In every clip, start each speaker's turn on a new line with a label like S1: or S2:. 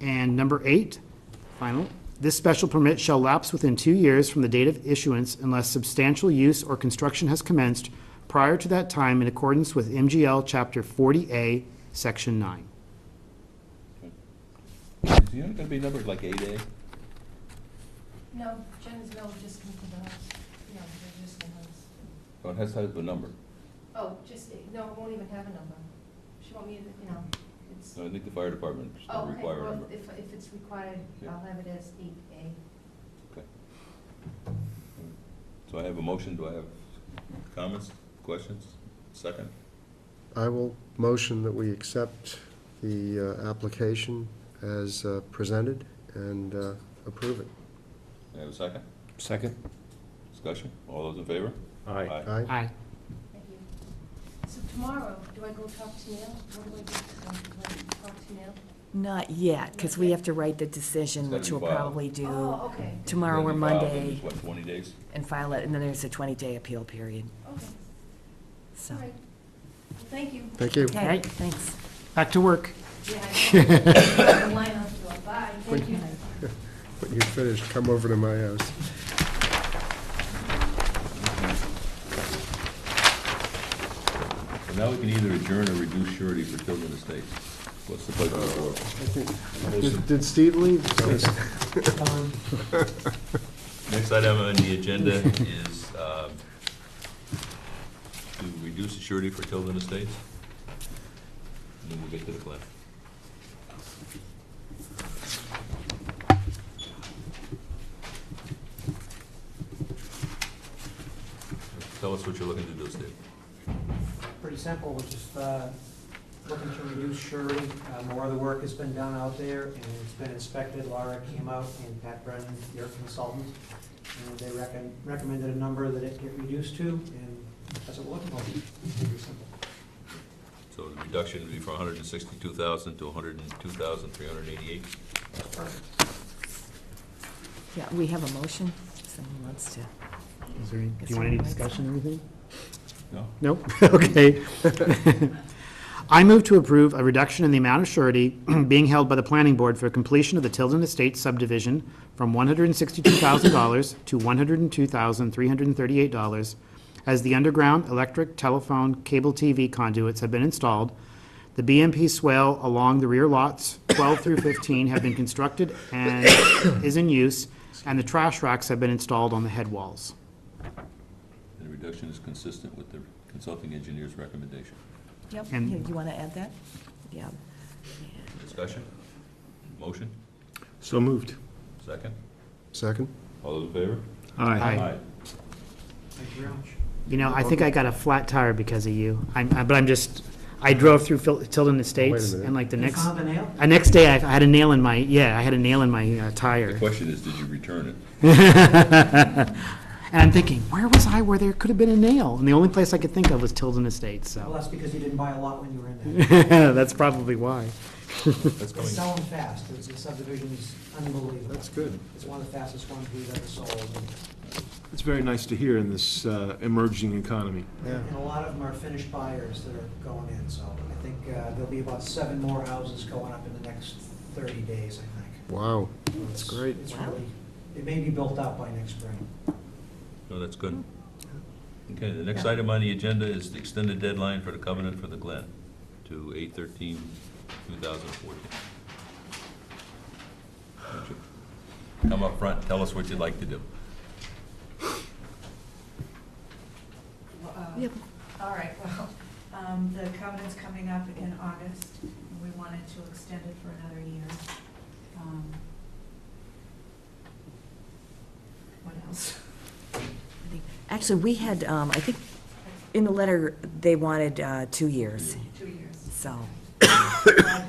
S1: And number eight, final, this special permit shall lapse within two years from the date of issuance unless substantial use or construction has commenced prior to that time in accordance with MGL Chapter 40A, Section 9.
S2: Is the unit gonna be numbered like eight A?
S3: No, Jen's mill just moved to the house. No, they're just in the house.
S2: Oh, it has to have a number.
S3: Oh, just, no, it won't even have a number. She won't need, it, you know, it's.
S2: No, I think the fire department is
S3: Oh,
S2: gonna
S3: okay,
S2: require a
S3: well,
S2: number.
S3: If, if it's required,
S2: Yeah.
S3: I'll have it as eight A.
S2: Okay. So I have a motion, do I have comments, questions? Second?
S4: I will motion that we accept the uh, application as uh, presented and uh, approve it.
S2: Do I have a second?
S5: Second?
S2: Discussion? All those in favor? Aye.
S4: Aye?
S1: Aye.
S3: Thank you. So tomorrow, do I go talk to Neil? What do I do? Um, do I talk to Neil?
S6: Not yet, because we have to write the decision,
S2: It's gotta
S6: which
S2: be
S6: we'll
S2: filed.
S6: probably do
S3: Oh, okay,
S6: tomorrow or
S2: Then you file it in,
S6: Monday,
S2: What, twenty days?
S6: and file it, and then there's a 20-day appeal period,
S3: okay,
S6: so.
S3: all right. Well, Thank you.
S4: Thank you.
S6: Okay,
S1: Right.
S6: thanks.
S1: Back to work.
S3: Yeah, I know. The line up to a bye, thank you.
S4: When you're finished, come over to my house.
S2: So now we can either adjourn or reduce surety for Tilden Estates. What's the pleasure of the board?
S4: Did- Did Steve leave?
S2: Next item on the agenda is uh, to reduce the surety for Tilden Estates. And then we'll get to the plan. Tell us what you're looking to do, Steve.
S7: Pretty simple, we're just uh, looking to reduce surety. Uh, More of the work has been done out there, and it's been inspected. Laura came out and Pat Brennan, their consultant, and they recon- recommended a number that it get reduced to, and that's what we're looking for. Pretty simple.
S2: So the reduction would be from 162,000 to 102,388.
S6: Yeah, we have a motion, if someone wants to.
S1: Is there any- Do you want any discussion or anything?
S2: No?
S1: Nope, okay. I move to approve a reduction in the amount of surety being held by the planning board for completion of the Tilden Estates subdivision from one hundred and sixty-two thousand dollars to one hundred and two thousand, three hundred and thirty-eight dollars as the underground electric, telephone, cable TV conduits have been installed. The BMP swale along the rear lots twelve through fifteen have been constructed and is in use, and the trash racks have been installed on the head walls.
S2: The reduction is consistent with the consulting engineer's recommendation.
S6: Yep,
S1: And-
S6: you want to add that? Yeah.
S2: Discussion? Motion?
S5: So moved.
S2: Second?
S4: Second?
S2: All those in favor?
S1: Aye.
S7: Thank you very much.
S1: You know, I think I got a flat tire because of you. I'm, I- but I'm just, I drove through Phil- Tilden Estates
S4: minute.
S1: and like the
S7: You
S1: next,
S7: found the nail?
S1: the next day I I had a nail in my, yeah, I had a nail in my uh,
S2: The
S1: tire.
S2: question is, did you return it?
S1: And I'm thinking, where was I where there could have been a nail? And the only place I could think of was Tilden Estates,
S7: Well,
S1: so.
S7: that's because you didn't buy a lot when you were in there.
S1: That's probably why.
S2: That's
S7: It's
S2: coming,
S7: selling fast, It's- the subdivision's unbelievable.
S4: That's good.
S7: It's one of the fastest ones we've ever sold, and-
S5: It's very nice to hear in this uh, emerging economy.
S4: Yeah.
S7: and a lot of them are finished buyers that are going in, so I think uh, there'll be about seven more houses going up in the next 30 days, I think.
S4: Wow.
S7: So it's-
S4: great.
S7: It's really, it may be built out by next spring.
S2: no, that's good. Okay, the next item on the agenda is the extended deadline for the covenant for the Glen to 8 2014 Come up front, tell us what you'd like to do.
S8: Well, uh, All right, well, um, the covenant's coming up in August, and we wanted to extend it for another year. Um, What else?
S6: Actually, we had, um, I think, in the letter, they wanted uh, two years,
S8: Two years.
S6: so, okay.
S2: I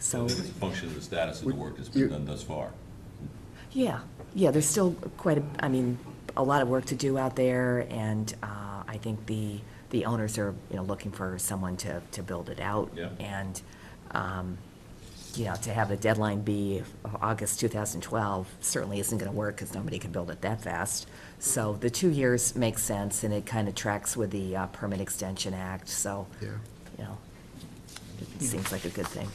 S6: So,
S2: think it's a function of the status of the work that's been done thus far.
S6: yeah, yeah, there's still quite, a I mean, a lot of work to do out there, and uh, I think the, the owners are, you know, looking for someone to, to build it out.
S2: Yeah.
S6: And, um, you know, to have the deadline be August 2012 certainly isn't going to work because nobody can build it that fast. So the two years makes sense, and it kind of tracks with the uh, Permit Extension Act, so,
S4: Yeah.
S6: you know, it seems like a good thing.